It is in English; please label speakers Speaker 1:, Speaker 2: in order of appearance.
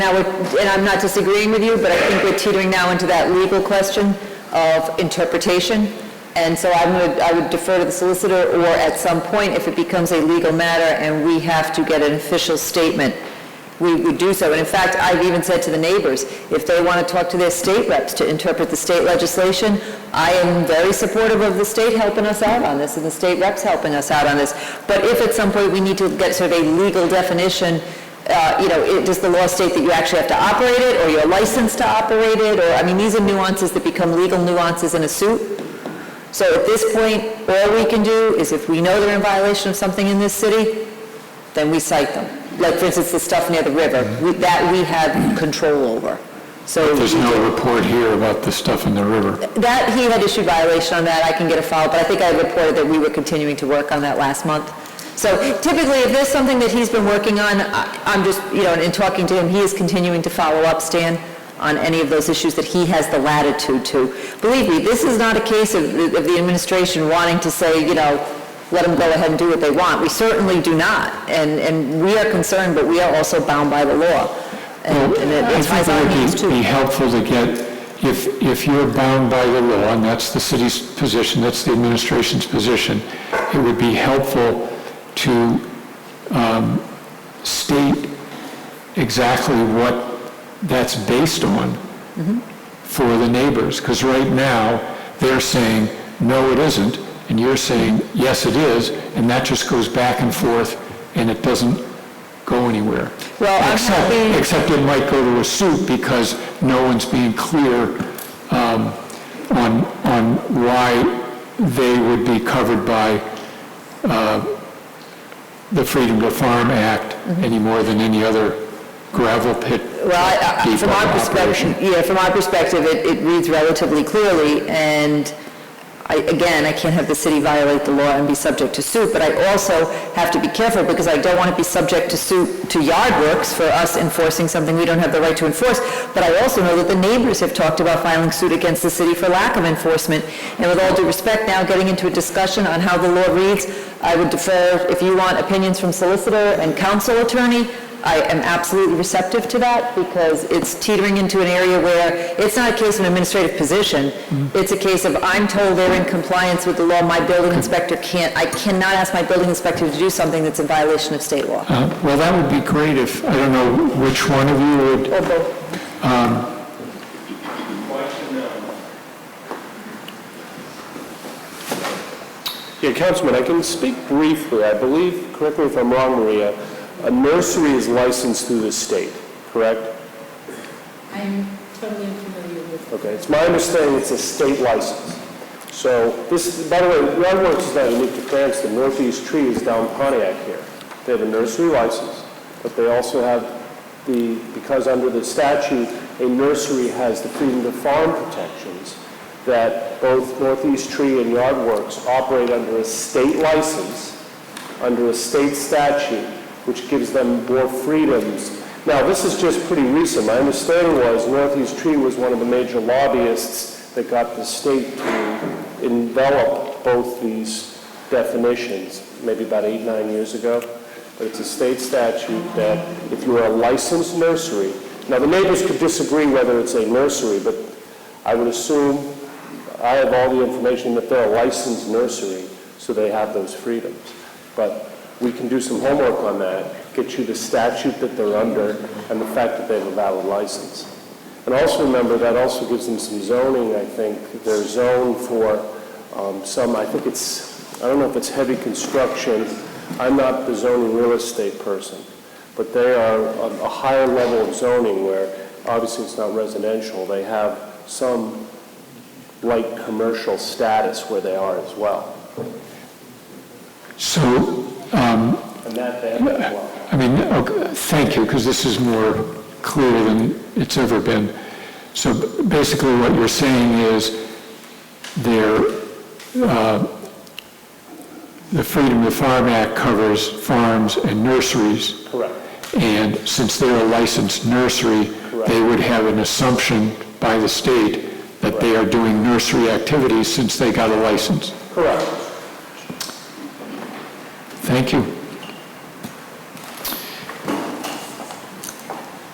Speaker 1: Now, we're- and I'm not disagreeing with you, but I think we're teetering now into that legal question of interpretation. And so I'm going to, I would defer to the solicitor, or at some point, if it becomes a legal matter and we have to get an official statement, we would do so. And in fact, I've even said to the neighbors, if they want to talk to their state reps to interpret the state legislation, I am very supportive of the state helping us out on this, and the state reps helping us out on this. But if at some point we need to get sort of a legal definition, uh, you know, it- does the law state that you actually have to operate it, or you're licensed to operate it, or, I mean, these are nuances that become legal nuances in a suit. So at this point, all we can do is if we know they're in violation of something in this city, then we cite them. Like, for instance, the stuff near the river, we- that we have control over. So
Speaker 2: There's no report here about the stuff in the river.
Speaker 1: that, he had issued violation on that, I can get a file, but I think I reported that we were continuing to work on that last month. So typically, if there's something that he's been working on, I- I'm just, you know, and in talking to him, he is continuing to follow up, Stan, on any of those issues that he has the latitude to. Believe me, this is not a case of, the- of the administration wanting to say, you know, let them go ahead and do what they want. We certainly do not, and, and we are concerned, but we are also bound by the law. And and it
Speaker 2: I
Speaker 1: applies
Speaker 2: think
Speaker 1: our
Speaker 2: it
Speaker 1: means
Speaker 2: would
Speaker 1: too.
Speaker 2: be- be helpful to get, if, if you're bound by the law, and that's the city's position, that's the administration's position, it would be helpful to um, state exactly what that's based on
Speaker 1: Mm-hmm.
Speaker 2: for the neighbors, because right now, they're saying, no, it isn't, and you're saying, yes, it is, and that just goes back and forth, and it doesn't go anywhere.
Speaker 1: Well, I'm
Speaker 2: Except-
Speaker 1: happy-
Speaker 2: Except it might go to a suit because no one's being clear um, on, on why they would be covered by uh, the Freedom to Farm Act any more than any other gravel pit.
Speaker 1: Mm-hmm. Well, I- I- from our
Speaker 2: depot
Speaker 1: perspective,
Speaker 2: operation.
Speaker 1: yeah, from our perspective, it, it reads relatively clearly, and I, again, I can't have the city violate the law and be subject to suit, but I also have to be careful, because I don't want to be subject to suit to yard works for us enforcing something we don't have the right to enforce, but I also know that the neighbors have talked about filing suit against the city for lack of enforcement, and with all due respect, now getting into a discussion on how the law reads, I would defer, if you want opinions from solicitor and council attorney, I am absolutely receptive to that because it's teetering into an area where it's not a case of an administrative position. It's a case of I'm told they're in compliance with the law, my building inspector can't, I cannot ask my building inspector to do something that's in violation of state law.
Speaker 2: Uh, Well, that would be great if, I don't know which one of you would
Speaker 1: Or both.
Speaker 3: Yeah, Councilman, I can speak briefly. I believe, correct me if I'm wrong, Maria, a nursery is licensed through the state, correct?
Speaker 4: I'm totally unfamiliar with
Speaker 3: Okay, it's my understanding it's a state license. So this, by the way, Yardworks is not unique to Cranston. Northeast Tree is down Pontiac here. They have a nursery license, but they also have the, because under the statute, a nursery has the freedom to farm protections that both Northeast Tree and Yardworks operate under a state license, under a state statute, which gives them more freedoms. Now, this is just pretty recent. My understanding was Northeast Tree was one of the major lobbyists that got the state to envelop both these definitions, maybe about eight, nine years ago. But it's a state statute that if you are a licensed nursery, now the neighbors could disagree whether it's a nursery, but I would assume, I have all the information that they're a licensed nursery, so they have those freedoms. But we can do some homework on that, get you the statute that they're under and the fact that they have a valid license. And also remember, that also gives them some zoning, I think. They're zoned for um, some, I think it's, I don't know if it's heavy construction. I'm not the zoning real estate person but they are a a higher level of zoning where, obviously, it's not residential. They have some light commercial status where they are as well.
Speaker 2: So, um,
Speaker 3: And that they have as well.
Speaker 2: I mean, okay, thank you, because this is more clear than it's ever been. So b- basically, what you're saying is there, uh, the Freedom to Farm Act covers farms and nurseries.
Speaker 3: Correct.
Speaker 2: And since they're a licensed nursery, they would have an assumption by the state that they are doing nursery activities since they got a license.
Speaker 3: Correct.
Speaker 2: Thank you.